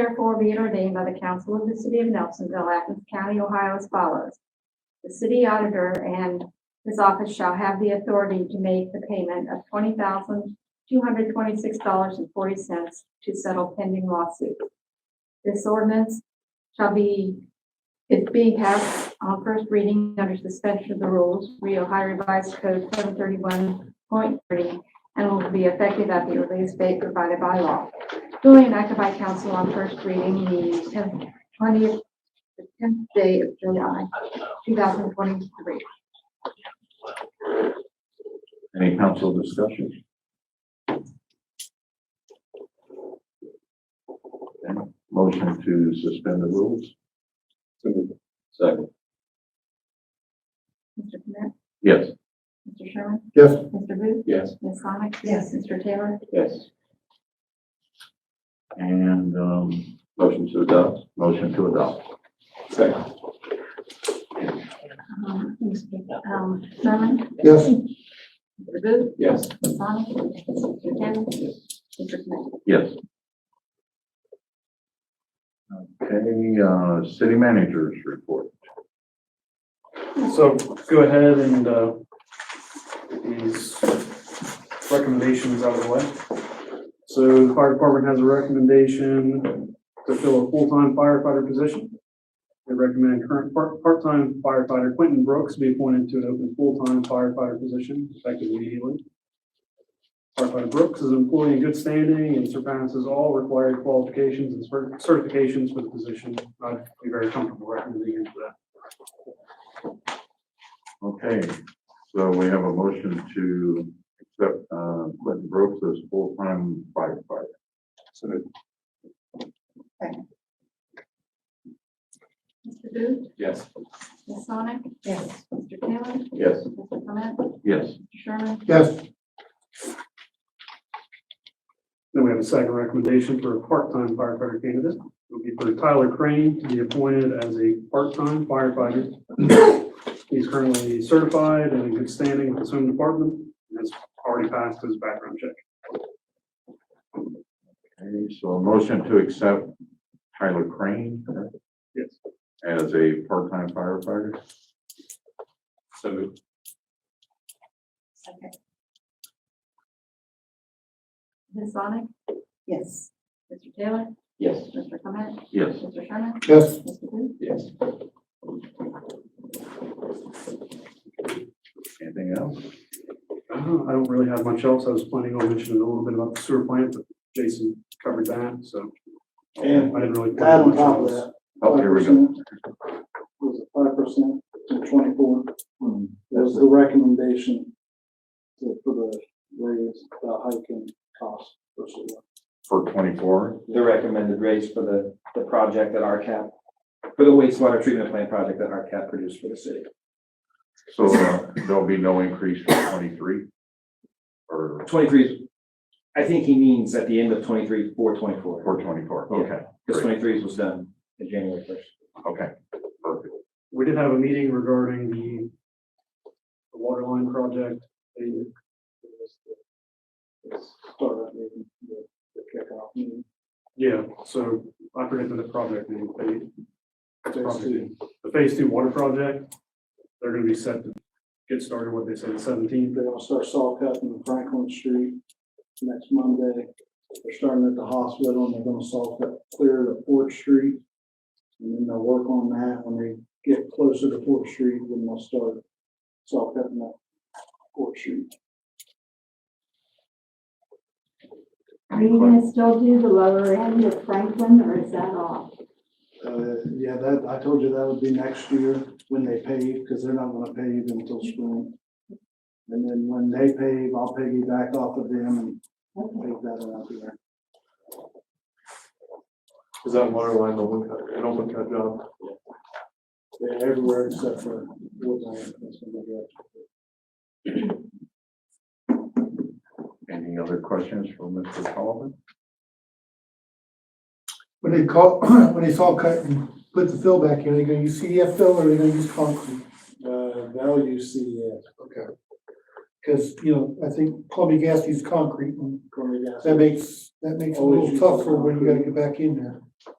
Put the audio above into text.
Therefore be it ordained by the Council of the City of Nelsonville, Athens County, Ohio as follows. The city auditor and his office shall have the authority to make the payment of twenty thousand two hundred twenty-six dollars and forty cents to settle pending lawsuit. This ordinance shall be, it being passed on first reading under suspension of the rules, Rio Ohio Revised Code seven thirty-one point three, and will be effective at the earliest date provided by law duly enacted by council on first reading the tenth, twentieth, the tenth day of July, two thousand twenty-three. Any council discussion? Okay, Motion to suspend the rules? Second. Mr. Clement? Yes. Mr. Sherman? Yes. Mr. Booth? Yes. Ms. Sonic? Yes. Mr. Taylor? Yes. And, um. Motion to adopt? Motion to adopt. Second. Um, Mr. um, Sherman? Yes. Mr. Booth? Yes. Ms. Sonic? Mr. Taylor? Mr. Clement? Yes. Okay, uh, city managers report. So go ahead and, uh, get these recommendations out of the way. So the fire department has a recommendation to fill a full-time firefighter position. They recommend current part, part-time firefighter Quentin Brooks be appointed to an open full-time firefighter position effective immediately. Firefighter Brooks is an employee in good standing and surpasses all required qualifications and cer- certifications for the position. I'd be very comfortable recommending him for that. Okay, so we have a motion to accept, uh, Quentin Brooks as full-time firefighter. Mr. Booth? Yes. Ms. Sonic? Yes. Mr. Taylor? Yes. Mr. Clement? Yes. Mr. Sherman? Yes. Then we have a second recommendation for a part-time firefighter candidate. It would be for Tyler Crane to be appointed as a part-time firefighter. He's currently certified and in good standing with his home department and has already passed his background check. Okay, so a motion to accept Tyler Crane correct, Yes. as a part-time firefighter. So Second. Ms. Sonic? Yes. Mr. Taylor? Yes. Mr. Clement? Yes. Mr. Sherman? Yes. Mr. Booth? Yes. Anything else? I don't I don't really have much else. I was planning on mentioning a little bit about the sewer plant, but Jason covered that, so I And didn't really. add on top of that. Oh, here we go. 5% Was it five percent and twenty-four? Hmm, That was the recommendation to- for the raise, the hike in cost for sewer. For twenty-four, the recommended rates for the, the project that RCAP, for the wastewater treatment plant project that RCAP produced for the city. so uh, there'll be no increase for twenty-three? Or Twenty-three, is- I think he means at the end of twenty-three, for twenty-four, for twenty-four? Okay, because twenty-three was done in January first. okay, perfect. We did have a meeting regarding the the water line project. They Start that meeting, the, the kickoff meeting. Yeah, so I forget the project name, they, Phase two. the phase two water project, they're gonna be set to get started, what they said, seventeenth. They're gonna start saw cutting Franklin Street next Monday. They're starting at the hospital and they're gonna saw cut clear to Fourth Street. And then they'll work on that when they get closer to Fourth Street, then they'll start saw cutting that Fourth Street. Are you gonna still do the lower end of Franklin or is that off? Uh, yeah, that, I told you that would be next year when they pave, because they're not gonna pave until spring. And then when they pave, I'll piggyback off of them and pave that out there. Is that water line open cut, an open cut job? They're everywhere except for Woodland. that's gonna be up. Any other questions for Mr. Sullivan? When they call, when they saw cut and put the fill back in, they gonna use CDF fill or they gonna use concrete? Uh, they'll use CDF, Okay. Cause, you know, I think Columbia Gas used concrete and Columbia that Gas. makes, that makes it a little tougher when you gotta get back in there.